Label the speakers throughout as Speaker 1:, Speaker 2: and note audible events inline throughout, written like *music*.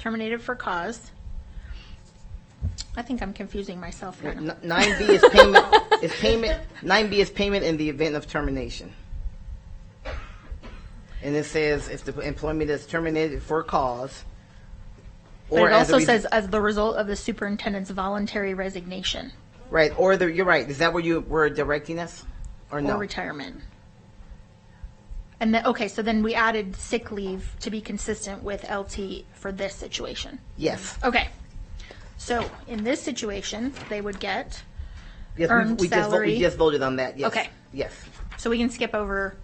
Speaker 1: terminated for cause. I think I'm confusing myself here.
Speaker 2: N- Nine B is payment, is payment, nine B is payment in the event of termination. And it says if the employment is terminated for cause.
Speaker 1: But
Speaker 2: or
Speaker 1: it
Speaker 2: as a
Speaker 1: also
Speaker 2: res-
Speaker 1: says, as the result of the superintendent's voluntary resignation
Speaker 2: Right, or the, you're right, is that where you were directing us? Or
Speaker 1: or
Speaker 2: no?
Speaker 1: retirement. And then, okay, so then we added sick leave to be consistent with LT for this situation.
Speaker 2: Yes.
Speaker 1: Okay. So in this situation, they would get,
Speaker 2: Yes, we-
Speaker 1: Earned
Speaker 2: we just vo-
Speaker 1: salary.
Speaker 2: We just voted on that, yes.
Speaker 1: Okay.
Speaker 2: Yes,
Speaker 1: so we can skip over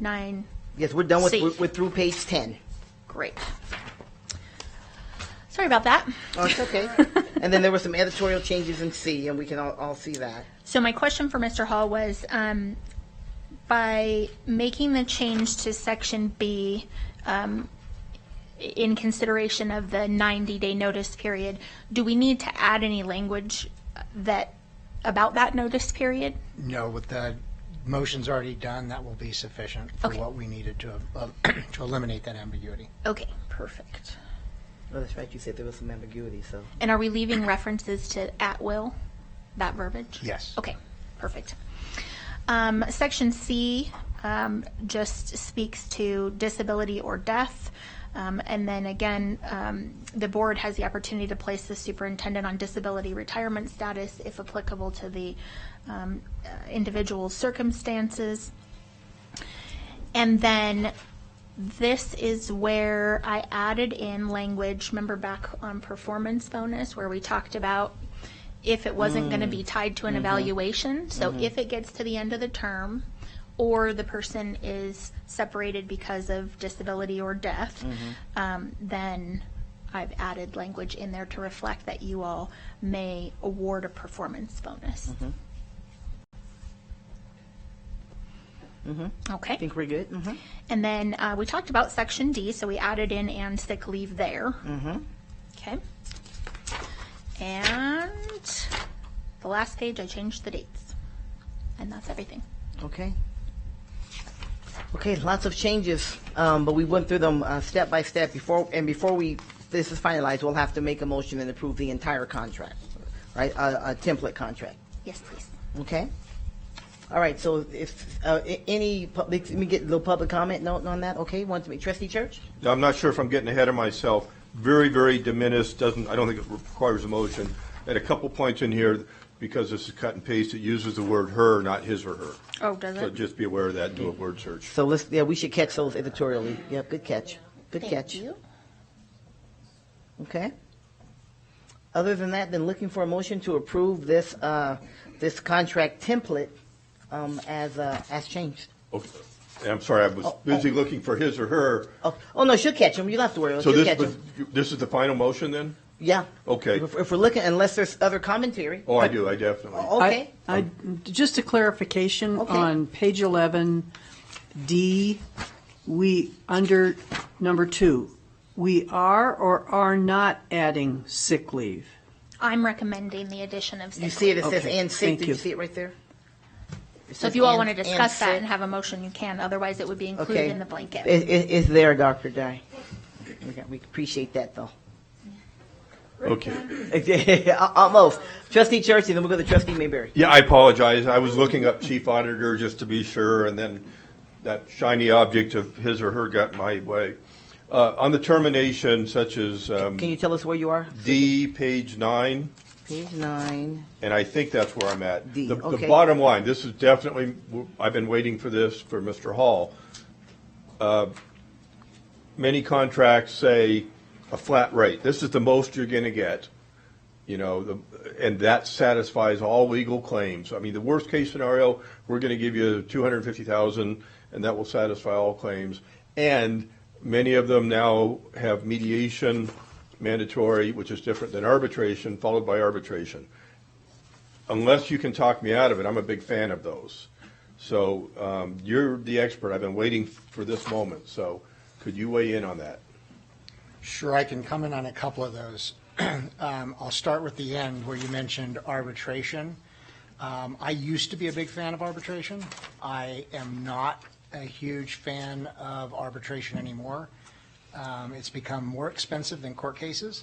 Speaker 1: nine
Speaker 2: yes, we're done with,
Speaker 1: C.
Speaker 2: we're- we're through
Speaker 1: *laughs*
Speaker 2: page ten.
Speaker 1: Great. Sorry about that.
Speaker 2: Oh, it's okay.
Speaker 1: *laughs*
Speaker 2: And then there were some editorial changes in C, and we can all, all see that.
Speaker 1: So my question for Mr. Hall was, um, by making the change to section B, um, in consideration of the 90-day notice period, do we need to add any language that, about that notice period?
Speaker 3: No, with the motions already done, that will be sufficient for
Speaker 1: Okay.
Speaker 3: what we needed to, uh, *clears throat* to eliminate that ambiguity.
Speaker 1: Okay, perfect.
Speaker 2: Oh, that's right, you said there was some ambiguity, so.
Speaker 1: And are we leaving references to at will, that verbiage?
Speaker 3: Yes.
Speaker 1: Okay, perfect. Um, Section C um, just speaks to disability or death. Um, And then again, um, the board has the opportunity to place the superintendent on disability retirement status if applicable to the um, uh, individual circumstances. And then this is where I added in language, remember back on performance bonus, where we talked about if it wasn't going to be tied to an evaluation. So if it gets to the end of the term, or the person is separated because of disability or death, um, then I've added language in there to reflect that you all may award a performance bonus. Okay.
Speaker 2: I think we're good? Mm-hmm.
Speaker 1: And then uh, we talked about section D, so we added in and sick leave there. Mm-hmm. Okay. And the last page, I changed the dates. And that's everything.
Speaker 2: Okay. Okay, lots of changes, um, but we went through them, uh, step by step before, and before we, this is finalized, we'll have to make a motion and approve the entire contract, right? uh, A, a template contract,
Speaker 1: Yes, please.
Speaker 2: okay? All right, so if, uh, a- any public, let me get a little public comment note on that, okay? Want to make, trustee Church?
Speaker 4: Now, I'm not sure if I'm getting ahead of myself. Very, very diminished, doesn't, I don't think it requires a motion. At a couple points in here, because this is cut and paste, it uses the word her, not his or her.
Speaker 1: Oh, does
Speaker 4: So
Speaker 1: it?
Speaker 4: just be aware of that, and do a word search.
Speaker 2: So let's, yeah, we should catch those editorially. Yep, good catch. Good
Speaker 1: Thank
Speaker 2: catch.
Speaker 1: you.
Speaker 2: Okay. Other than that, then looking for a motion to approve this, uh, this contract template, um, as, uh, as changed.
Speaker 4: Okay. And I'm sorry, I was
Speaker 2: Oh,
Speaker 4: busy
Speaker 2: oh.
Speaker 4: looking for his or her.
Speaker 2: Oh, oh, no, she'll catch him. You'll have to worry.
Speaker 4: So
Speaker 2: She'll
Speaker 4: this,
Speaker 2: catch
Speaker 4: was-
Speaker 2: him.
Speaker 4: this is the final motion then?
Speaker 2: Yeah.
Speaker 4: Okay.
Speaker 2: If, if we're looking, unless there's other commentary.
Speaker 4: Oh, I do, I definitely.
Speaker 5: I-
Speaker 2: Okay.
Speaker 5: I, just a clarification
Speaker 2: Okay.
Speaker 5: on page 11, D, we, under number two, we are or are not adding sick leave?
Speaker 1: I'm recommending the addition of
Speaker 2: You
Speaker 1: sick
Speaker 2: see it, it
Speaker 1: leave.
Speaker 2: says
Speaker 5: Okay,
Speaker 2: and sick.
Speaker 5: thank
Speaker 2: Do you
Speaker 5: you.
Speaker 2: see it right there? It
Speaker 1: So
Speaker 2: says
Speaker 1: if you all
Speaker 2: and-
Speaker 1: want to discuss that
Speaker 2: sick.
Speaker 1: and have a motion, you can. Otherwise, it would be included
Speaker 2: Okay.
Speaker 1: in the blanket.
Speaker 2: It, it, it's there, Dr. Dye. We got- We appreciate that
Speaker 5: *laughs*
Speaker 2: though. *laughs*
Speaker 4: Okay.
Speaker 2: Al- Almost. Trustee Church, and then we'll go to trustee Mayberry.
Speaker 4: Yeah, I apologize. I was looking up chief auditor just to be sure, and then that shiny object of his or her got in my way. Uh, on the termination, such as um,
Speaker 2: Can you tell us where you are?
Speaker 4: D, page nine,
Speaker 2: Page nine.
Speaker 4: and I think that's where I'm at.
Speaker 2: D,
Speaker 4: The-
Speaker 2: okay.
Speaker 4: The bottom line, this is definitely, I've been waiting for this for Mr. Hall. Uh, Many contracts say a flat rate. This is the most you're going to get, you know, the- and that satisfies all legal claims. I mean, the worst-case scenario, we're going to give you 250,000, and that will satisfy all claims. And many of them now have mediation mandatory, which is different than arbitration, followed by arbitration unless you can talk me out of it, I'm a big fan of those. So um, you're the expert. I've been waiting for this moment. So could you weigh in on that?
Speaker 3: Sure, I can comment on a couple of those. *clears throat* Um, I'll start with the end where you mentioned arbitration. Um, I used to be a big fan of arbitration. I am not a huge fan of arbitration anymore. Um, It's become more expensive than court cases.